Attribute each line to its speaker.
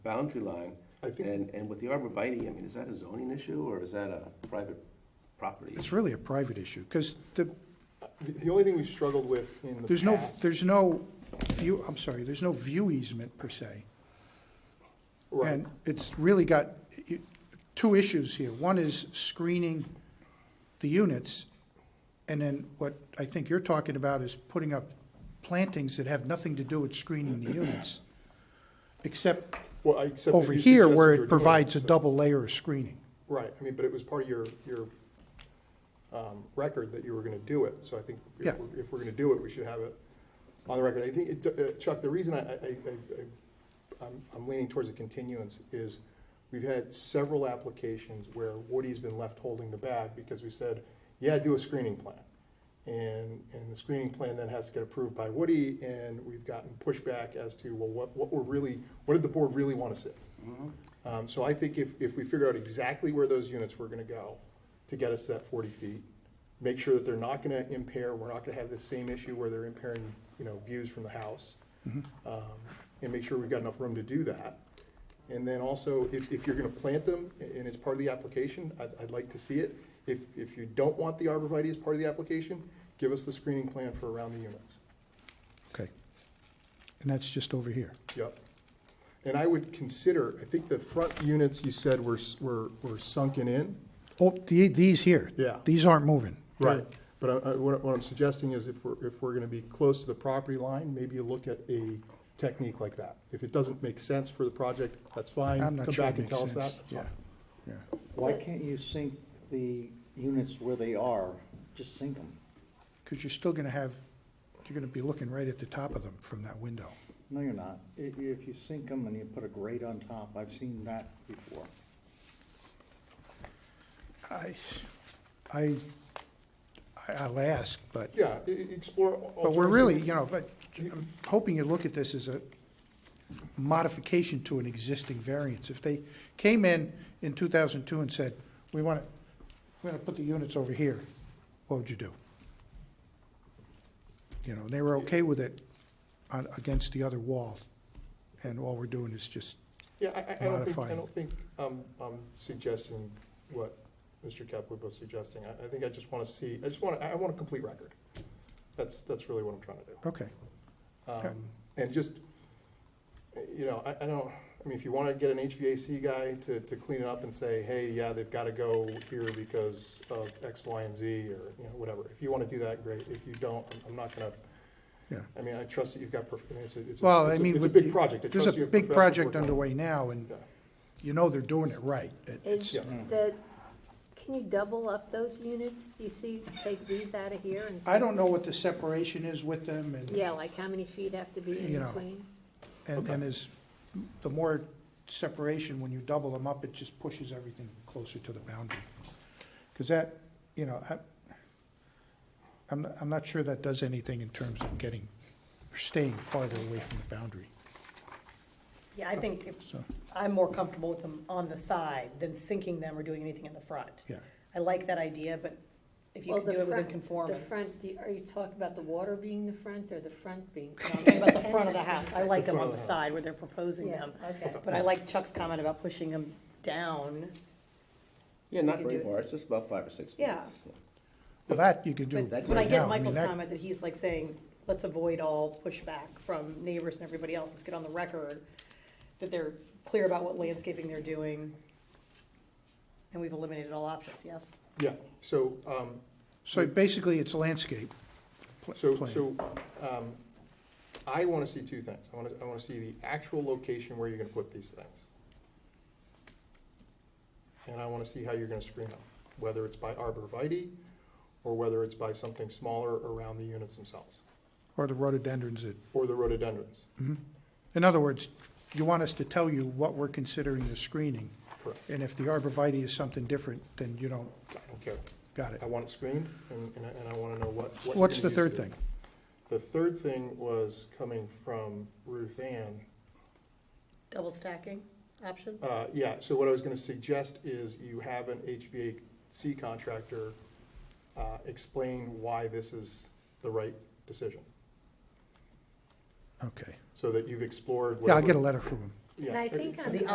Speaker 1: boundary line.
Speaker 2: I think-
Speaker 1: And, and with the arborvitae, I mean, is that a zoning issue or is that a private property?
Speaker 3: It's really a private issue, because the,
Speaker 2: The the only thing we've struggled with in the
Speaker 3: there's no,
Speaker 2: past-
Speaker 3: there's no view, I'm sorry, there's no view easement per se.
Speaker 2: Right.
Speaker 3: And it's really got i- two issues here. One is screening the units, and then what I think you're talking about is putting up plantings that have nothing to do with screening the units, except
Speaker 2: Well, I- except that
Speaker 3: over
Speaker 2: you
Speaker 3: here
Speaker 2: suggested
Speaker 3: where
Speaker 2: you were
Speaker 3: it
Speaker 2: doing
Speaker 3: provides a
Speaker 2: so-
Speaker 3: double layer of screening.
Speaker 2: Right, I mean, but it was part of your, your um, record that you were going to do it, so I think
Speaker 3: Yeah.
Speaker 2: if we're, if we're going to do it, we should have it on the record. I think, it- uh, Chuck, the reason I, I, I- I, I'm- I'm leaning towards a continuance is we've had several applications where Woody's been left holding the bag because we said, yeah, do a screening plan. And, and the screening plan then has to get approved by Woody, and we've gotten pushback as to, well, what, what we're really, what did the board really want to see? Um, so I think if, if we figure out exactly where those units were gonna go to get us to that forty feet, make sure that they're not gonna impair, we're not gonna have the same issue where they're impairing, you know, views from the house. Um, and make sure we've got enough room to do that. And then also, if, if you're gonna plant them a- and it's part of the application, I'd, I'd like to see it. If, if you don't want the arborvitae as part of the application, give us the screening plan for around the units.
Speaker 3: Okay. And that's just over here.
Speaker 2: Yep. And I would consider, I think the front units you said were, s- were, were sunken in.
Speaker 3: Oh, the, these here.
Speaker 2: Yeah.
Speaker 3: These aren't moving.
Speaker 2: Right. But I, I, what, what I'm suggesting is if we're, if we're gonna be close to the property line, maybe you look at a technique like that. If it doesn't make sense for the project, that's fine.
Speaker 3: I'm not sure it makes
Speaker 2: Come back and
Speaker 3: sense.
Speaker 2: tell us that, that's
Speaker 3: Yeah.
Speaker 2: fine.
Speaker 3: Yeah.
Speaker 4: Why can't you sink the units where they are? Just sink them.
Speaker 3: Because you're still going to have, you're going to be looking right at the top of them from that window.
Speaker 4: No, you're not. I- If you sink them and you put a grate on top, I've seen that before.
Speaker 3: I, I, I- I'll ask, but,
Speaker 2: Yeah, e- e- explore.
Speaker 3: but we're
Speaker 2: alternatives.
Speaker 3: really, you know, but I'm hoping you look at this as a modification to an existing variance. If they came in in 2002 and said, we want to, we're going to put the units over here, what would you do? You know, and they were okay with it on, against the other wall, and all we're doing is just
Speaker 2: Yeah, I- I, I don't think, I
Speaker 3: modifying.
Speaker 2: don't think I'm, I'm suggesting what Mr. Capwood was suggesting. I, I think I just wanna see, I just wanna, I I want a complete record. That's, that's really what I'm trying to do.
Speaker 3: Okay,
Speaker 2: Um, And just, you know, I, I don't, I mean, if you want to get an HVAC guy to, to clean it up and say, hey, yeah, they've got to go here because of X, Y, and Z, or, you know, whatever. If you want to do that, great. If you don't, I'm- I'm not gonna,
Speaker 3: yeah.
Speaker 2: I mean, I trust that you've got, prof- I mean, it's a, it's
Speaker 3: Well,
Speaker 2: a,
Speaker 3: I
Speaker 2: it's a-
Speaker 3: mean.
Speaker 2: it's a
Speaker 3: with
Speaker 2: big
Speaker 3: the-
Speaker 2: project. I
Speaker 3: There's a
Speaker 2: trust you have
Speaker 3: big
Speaker 2: professionals
Speaker 3: project
Speaker 2: working on it.
Speaker 3: underway now, and
Speaker 2: Yeah.
Speaker 3: you know they're doing it right. It-
Speaker 5: Is
Speaker 3: It's, mm.
Speaker 2: Yeah.
Speaker 5: the, can you double up those units? Do you see, take these out of here and?
Speaker 3: I don't know what the separation is with them, and,
Speaker 5: Yeah, like how many feet have to be
Speaker 3: You
Speaker 5: in
Speaker 3: know.
Speaker 5: between?
Speaker 3: and, and is, the more separation, when you double them up, it just pushes everything closer to the boundary. Because that, you know, I, I'm, I'm not sure that does anything in terms of getting, or staying farther away from the boundary,
Speaker 6: Yeah, I think if-
Speaker 3: so,
Speaker 6: I'm more comfortable with them on the side than sinking them or doing anything in the front.
Speaker 3: yeah.
Speaker 6: I like that idea, but if you
Speaker 5: Well,
Speaker 6: can
Speaker 5: the
Speaker 6: do it within
Speaker 5: front- The
Speaker 6: conformity.
Speaker 5: front, do you- are you talking about the water being the front or the front being?
Speaker 6: About the front of the house, I like them
Speaker 2: front
Speaker 6: on
Speaker 2: of
Speaker 6: the
Speaker 2: the house.
Speaker 6: side where they're proposing
Speaker 5: Yeah,
Speaker 6: them.
Speaker 5: okay.
Speaker 6: But I like Chuck's comment about pushing them down.
Speaker 1: Yeah, not
Speaker 6: You can
Speaker 1: very
Speaker 6: do it.
Speaker 1: far, it's just about five or six feet.
Speaker 6: Yeah.
Speaker 3: Well, that you could do
Speaker 6: But
Speaker 3: right
Speaker 6: when I
Speaker 3: now.
Speaker 6: get
Speaker 3: I mean,
Speaker 6: Michael's
Speaker 3: that-
Speaker 6: comment that he's like saying, let's avoid all pushback from neighbors and everybody else, let's get on the record that they're clear about what landscaping they're doing. And we've eliminated all options, yes?
Speaker 2: Yeah, so, um,
Speaker 3: So basically, it's landscape pl-
Speaker 2: So,
Speaker 3: plan.
Speaker 2: so, um, I wanna see two things. I wanna, I wanna see the actual location where you're gonna put these things. And I wanna see how you're gonna screen them, whether it's by arborvitae, or whether it's by something smaller around the units themselves,
Speaker 3: Or the rhododendrons that
Speaker 2: or the rhododendrons.
Speaker 3: In other words, you want us to tell you what we're considering the screening,
Speaker 2: Correct.
Speaker 3: and if the arborvitae is something different, then you don't,
Speaker 2: I don't care.
Speaker 3: got it.
Speaker 2: I want it screened, and, and I, and I wanna know what, what. you're
Speaker 3: What's the
Speaker 2: gonna use
Speaker 3: third
Speaker 2: it
Speaker 3: thing?
Speaker 2: in. The third thing was coming from Ruth Ann,
Speaker 6: Double stacking option?
Speaker 2: Uh, Yeah, so what I was going to suggest is you have an HVAC contractor uh, explain why this is the right decision,
Speaker 3: Okay.
Speaker 2: so that you've explored.
Speaker 3: Yeah, I'll
Speaker 2: whatever-
Speaker 3: get a letter from him.
Speaker 2: yeah. uh,
Speaker 5: And I think
Speaker 2: it's-
Speaker 5: on the